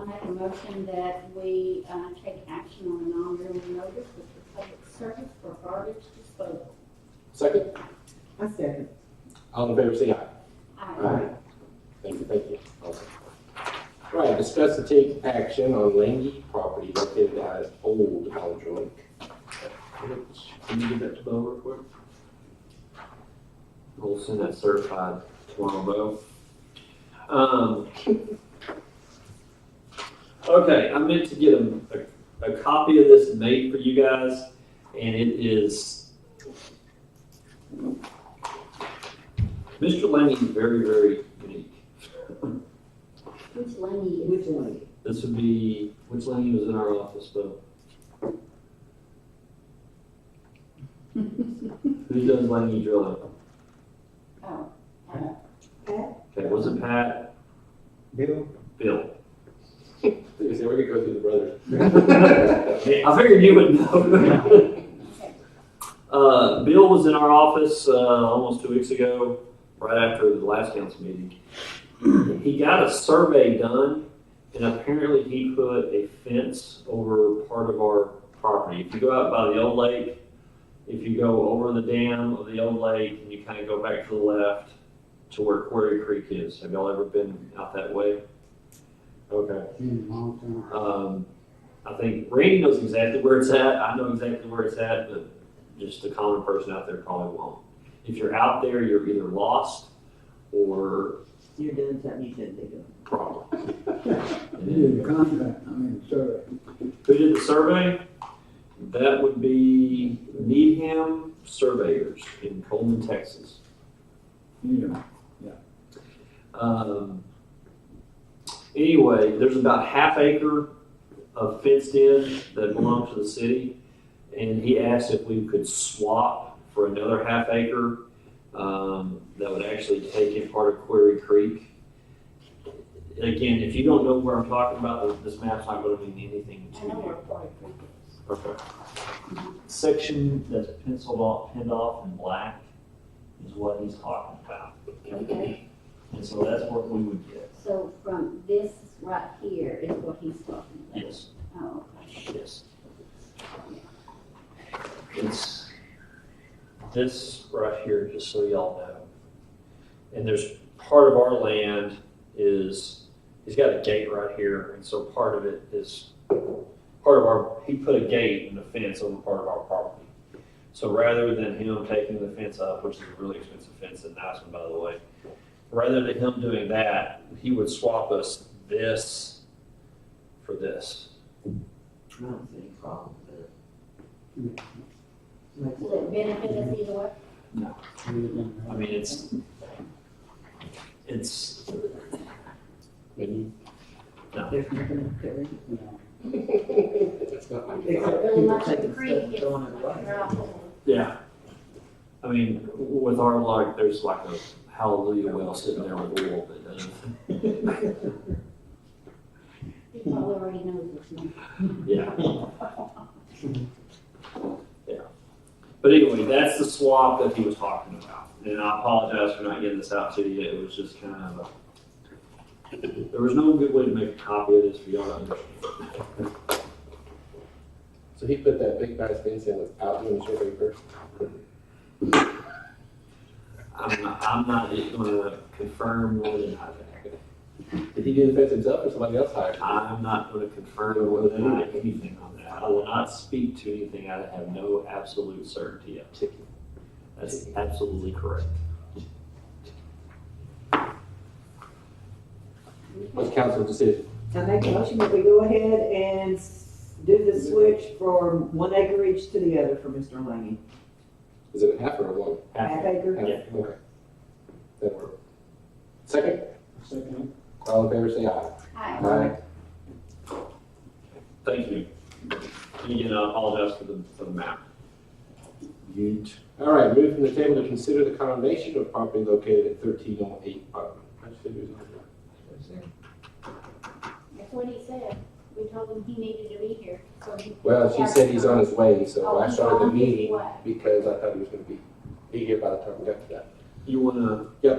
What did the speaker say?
make a motion that we uh, take action on a non-renewal notice with the public service for garbage disposal. Second, I second. all in favor, say aye. Aye. Thank you, thank you. Awesome. All right, discuss and take action on Langy property located at Old College Lake. Can you give that to Bo real quick? We'll send that certified tomorrow, Bo. Um, okay, I meant to get a, a, a copy of this made for you guys, and it is. Mr. Lanning is very, very unique. Which Lenny is? Which one? This would be, which Lanning was in our office, Bo? Who does Lanning drilling? Oh, uh, Okay, was it Pat? Bill? Bill. They say we're gonna go through the brothers. I figured you would know. okay. Uh, Bill was in our office, uh, almost two weeks ago, right after the last council meeting. He got a survey done, and apparently he put a fence over part of our property. If you go out by the old lake, if you go over the dam of the old lake, and you kind of go back to the left to where Quarry Creek is. Have y'all ever been out that way? Okay. Been a long time. Um, I think Randy knows exactly where it's at. I know exactly where it's at, but just the common person out there probably won't. If you're out there, you're either lost or You're doing something you shouldn't be doing. problem. Did the contract, I mean, survey. Who did the survey? That would be Needham Surveyors in Coleman, Texas. Yeah. Um, anyway, there's about half acre of fenced in that belongs to the city, and he asked if we could swap for another half acre um, that would actually take in part of Quarry Creek. Again, if you don't know where I'm talking about, this map's not going to mean anything to I know where you. Quarry Creek is. Okay. Section that's penciled off, pinned off in black is what he's talking about. Okay. And so that's what we would get. So from this right here is what he's talking about. Yes. Oh, Yes. It's this right here, just so y'all know. And there's, part of our land is, he's got a gate right here, and so part of it is, part of our, he put a gate and a fence over part of our property. So rather than him taking the fence up, which is a really expensive fence, a nice one, by the way, rather than him doing that, he would swap us this for this. I don't see any problem with it. okay. Will it benefit us either way? I mean, it's, it's, There's nothing to it. That's not my. Except Really people much of taking the creek stuff, is throwing it like away. right over. yeah. I mean, with our luck, there's like a hallelujah well sitting there with uh, a wall that doesn't, He probably already knows this one. yeah. Yeah. But anyway, that's the swap that he was talking about. And I apologize for not getting this out to you. It was just kind of a, there was no good way to make a copy of this for y'all to understand. So he put that big bass fence in without doing the survey first? I'm not, I'm not gonna confirm whether or not that. Did he do the fence himself or somebody else hired? him? I'm not going to confirm whether or not anything on that. I will not speak to anything I have no absolute certainty of. That's absolutely correct. What's council's decision? I make a motion that we go ahead and s- do the switch from one acreage to the other for Mr. Laney. Is it a half or a one? Half Half- acre, Half, Yeah. Okay. That work. Second, Second. all in favor, say aye. Hi. Thank you. And Again, I apologize for the, for the map. All right, move from the table to consider the condemnation of property located at thirteen oh eight Putnam. I just figured it was on there. That's what he said. We told him he needed to be here, so he. Well, she said he's on his way, so Oh, I he's started the on his meeting way. because I thought he was gonna be, be here by the time we got to that. You want to